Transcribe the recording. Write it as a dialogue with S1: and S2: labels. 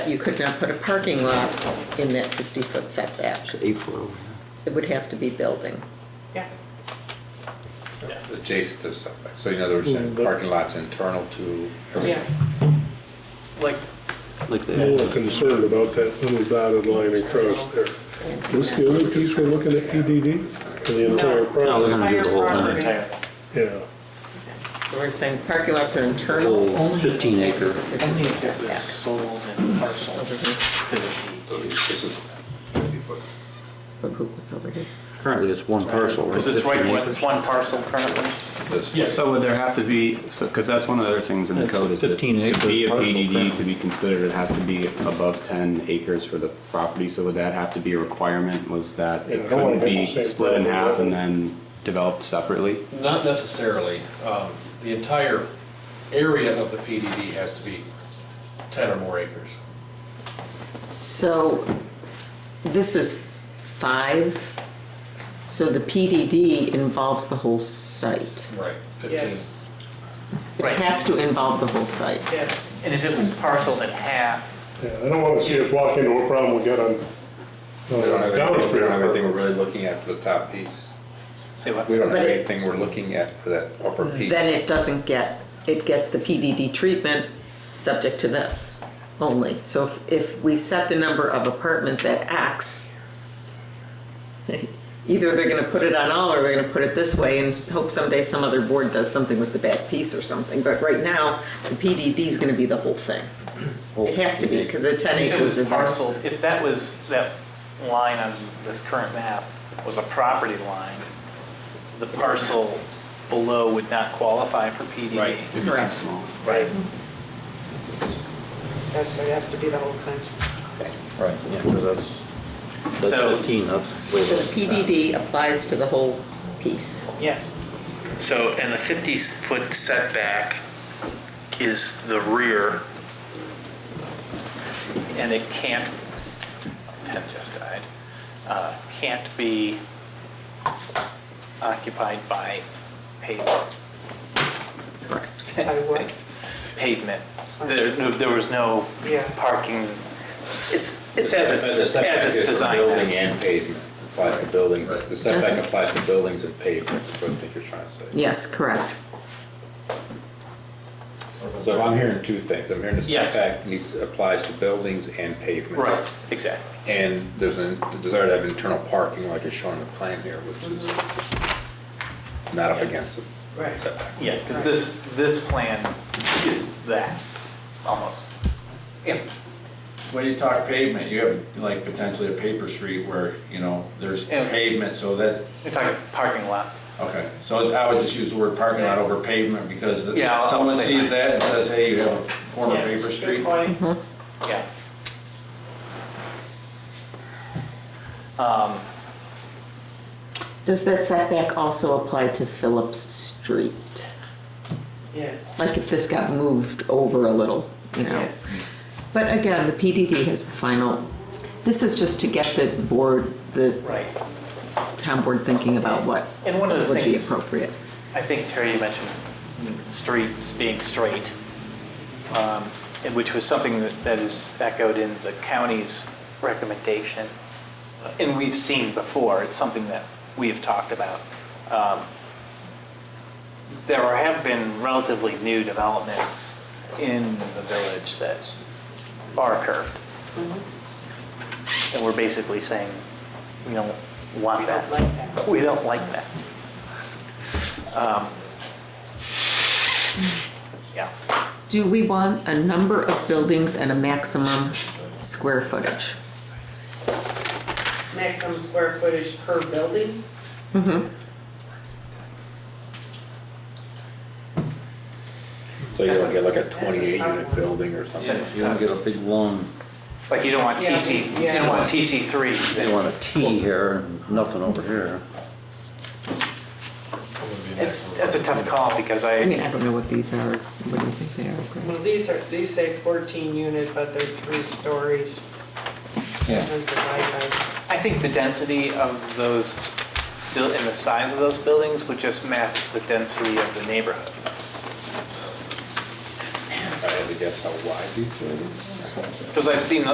S1: You could not put a parking lot in that 50-foot setback.
S2: Eight foot.
S1: It would have to be building.
S3: Yeah.
S4: adjacent to the setback. So in other words, then parking lot's internal to
S3: Yeah.
S4: everything.
S5: Like,
S2: Like
S6: I'm a
S2: that.
S6: little concerned about that little dotted line across there. This the other piece we're looking at PDD? For the entire
S2: No,
S3: No.
S2: they're
S6: property?
S2: gonna do the whole thing.
S5: entire,
S6: Yeah.
S1: So we're saying parking lots are
S2: The
S1: internal.
S2: Whole fifteen acre.
S5: only if it was sold in parcel.
S1: Over here.
S5: could it
S4: So this is fifty foot.
S1: But who- What's over here?
S2: Currently, it's one parcel.
S5: be-
S2: right?
S5: Is this right,
S2: 15
S5: this one parcel currently?
S4: This-
S7: So would there have to be, because that's one of the other things in the
S8: It's
S7: code is that
S8: 15 acre
S7: to be a
S8: parcel,
S7: PDD
S8: correct.
S7: to be considered, it has to be above 10 acres for the property. So would that have to be a requirement? Was that
S6: Yeah, I
S7: it
S6: don't wanna
S7: couldn't be
S6: have the same
S7: split in
S6: problem.
S7: half and then developed separately?
S9: Not necessarily. Um, The entire area of the PDD has to be 10 or more acres.
S1: So this is five, so the PDD involves the whole site.
S9: Right. 15.
S3: Yes.
S1: It
S5: Right.
S1: has to involve the whole site.
S3: Yes.
S5: And if it was parceled in half,
S6: Yeah, I don't wanna see us walk into a problem we got on uh,
S4: We don't have
S6: on
S4: anything- we
S6: Downstream.
S4: don't have anything we're really looking at for the top piece.
S5: say what?
S4: We don't have
S1: But it-
S4: anything we're looking at for that upper piece.
S1: Then it doesn't get, it gets the PDD treatment subject to this only. So if, if we set the number of apartments at X, either they're gonna put it on all or they're gonna put it this way and hope someday some other board does something with the back piece or something. But right now, the PDD is gonna be the whole thing. It has to be, because the ten
S5: If it
S1: acres
S5: was
S1: is.
S5: parceled, if that was, that line on this current map was a property line, the parcel below would not qualify for E. PDD.
S7: Right.
S1: Correct.
S5: Right.
S3: That's, it has to be the whole thing.
S8: Right, yeah, because that's,
S5: So-
S8: that's 15, that's way
S1: So the
S8: less than that.
S1: PDD applies to the whole piece.
S3: Yes.
S5: So, and the 50-foot setback is the rear, and it can't, pen just died, uh, can't be occupied by pavement.
S3: By what?
S5: Pavement. There, no- there was no
S3: Yeah.
S5: parking, it's, it's as it's,
S4: But the
S5: as
S4: setback is
S5: it's
S4: for
S5: designed.
S4: Building and pavement applies to buildings. The setback applies to buildings and pavement, is what I think you're trying to say.
S1: Yes, correct.
S4: So if I'm hearing two things, I'm hearing the
S5: Yes.
S4: setback needs, applies to buildings and pavements.
S5: Right, exactly.
S4: And there's a desire to have internal parking like is shown in the plan here, which is not up against the
S3: Right.
S4: setback.
S5: Yeah, because this, this plan is that, almost. Yeah.
S9: When you talk pavement, you have like potentially a paper street where, you know, there's
S5: Yeah.
S9: pavement, so that,
S5: You're talking parking lot.
S9: okay. So I would just use the word parking lot over pavement because the-
S5: Yeah, I'll- I'll
S9: someone
S5: say
S9: sees
S5: that.
S9: that and says, hey, you have a former
S5: Yeah.
S9: paper street.
S3: Good point.
S5: Yeah. Um,
S1: Does that setback also apply to Phillips Street?
S3: Yes.
S1: Like if this got moved over a little, you know?
S3: Yes.
S1: But again, the PDD has the final, this is just to get the board, the
S5: Right.
S1: town board thinking about what
S5: And one of the
S1: would be
S5: things-
S1: appropriate.
S5: I think Terry, you mentioned streets being straight, um, and which was something that that is echoed in the county's recommendation. And we've seen before, it's something that we have talked about. Um, There are- have been relatively new developments in the village that are curved. And we're basically saying, we don't want
S3: We don't
S5: that.
S3: like that.
S5: We don't like that. Um, Yeah,
S1: Do we want a number of buildings and a maximum square footage?
S3: Maximum square footage per building?
S4: So you don't get like a 28-unit building or something.
S5: That's-
S8: You want to get a big long,
S5: like you don't want
S3: Yeah,
S5: TC, you
S3: yeah.
S5: don't want TC three.
S8: you want a T here and nothing over here.
S5: It's, that's a tough call because
S1: I
S5: I,
S1: mean, I don't know what these are, what do you think they are? Greg?
S3: Well, these are, these say 14 units, but they're three stories.
S7: Yeah.
S3: And divide by-
S5: I think the density of those, buil- and the size of those buildings would just match the density of the neighborhood.
S4: I think
S10: guess how wide these are?
S4: Because I've seen